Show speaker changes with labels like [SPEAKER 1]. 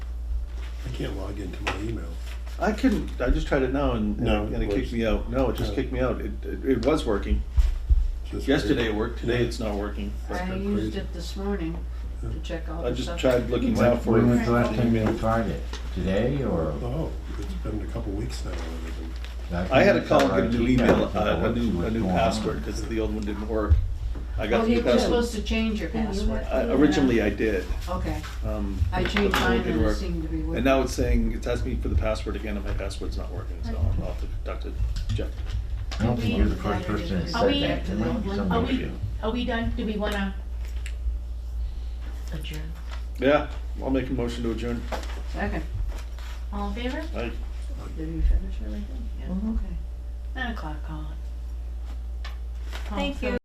[SPEAKER 1] I can't log into my email.
[SPEAKER 2] I couldn't. I just tried it now, and
[SPEAKER 1] No,
[SPEAKER 2] and, it
[SPEAKER 1] it
[SPEAKER 2] kicked me out. No, it just
[SPEAKER 1] No.
[SPEAKER 2] kicked me out. It, it, it was working
[SPEAKER 1] Just-
[SPEAKER 2] yesterday. It worked. Today,
[SPEAKER 1] Yeah.
[SPEAKER 2] it's not working.
[SPEAKER 1] That's
[SPEAKER 3] I
[SPEAKER 1] been
[SPEAKER 3] used
[SPEAKER 1] crazy.
[SPEAKER 3] it this morning to check all
[SPEAKER 2] I
[SPEAKER 3] the
[SPEAKER 2] just
[SPEAKER 3] stuff.
[SPEAKER 2] tried looking
[SPEAKER 3] Well,
[SPEAKER 2] out
[SPEAKER 3] Right.
[SPEAKER 2] for
[SPEAKER 3] Right.
[SPEAKER 2] it.
[SPEAKER 3] Right.
[SPEAKER 4] When's the last time you tried it? Today or?
[SPEAKER 1] Oh, it's been a couple weeks now. and everything.
[SPEAKER 2] I had to call and get a new
[SPEAKER 4] Keep
[SPEAKER 2] email,
[SPEAKER 4] that,
[SPEAKER 2] uh, a
[SPEAKER 4] what's-
[SPEAKER 2] new, a
[SPEAKER 4] what's
[SPEAKER 2] new
[SPEAKER 4] going on.
[SPEAKER 2] password, because the old one didn't work. I got
[SPEAKER 3] Well,
[SPEAKER 2] the new
[SPEAKER 3] you were
[SPEAKER 2] password.
[SPEAKER 3] supposed to change your password.
[SPEAKER 2] I- Originally, I did.
[SPEAKER 3] Okay,
[SPEAKER 2] um,
[SPEAKER 3] I
[SPEAKER 2] but
[SPEAKER 3] changed
[SPEAKER 2] the one
[SPEAKER 3] mine
[SPEAKER 2] didn't
[SPEAKER 3] and it
[SPEAKER 2] work.
[SPEAKER 3] seemed to be working.
[SPEAKER 2] And now it's saying, it's asking me for the password again, and my password's not working, so I'll have to conduct a check.
[SPEAKER 4] I don't think you're the first person that
[SPEAKER 5] Are we-
[SPEAKER 4] said that. There might be some
[SPEAKER 5] Are we,
[SPEAKER 4] issue.
[SPEAKER 5] are we done? Do we wanna adjourn?
[SPEAKER 2] Yeah, I'll make a motion to adjourn.
[SPEAKER 3] Second,
[SPEAKER 5] All in favor?
[SPEAKER 2] I-
[SPEAKER 3] did you finish everything? Oh,
[SPEAKER 5] Yeah.
[SPEAKER 3] Okay.
[SPEAKER 5] Nine o'clock, Colin.
[SPEAKER 6] Thank you.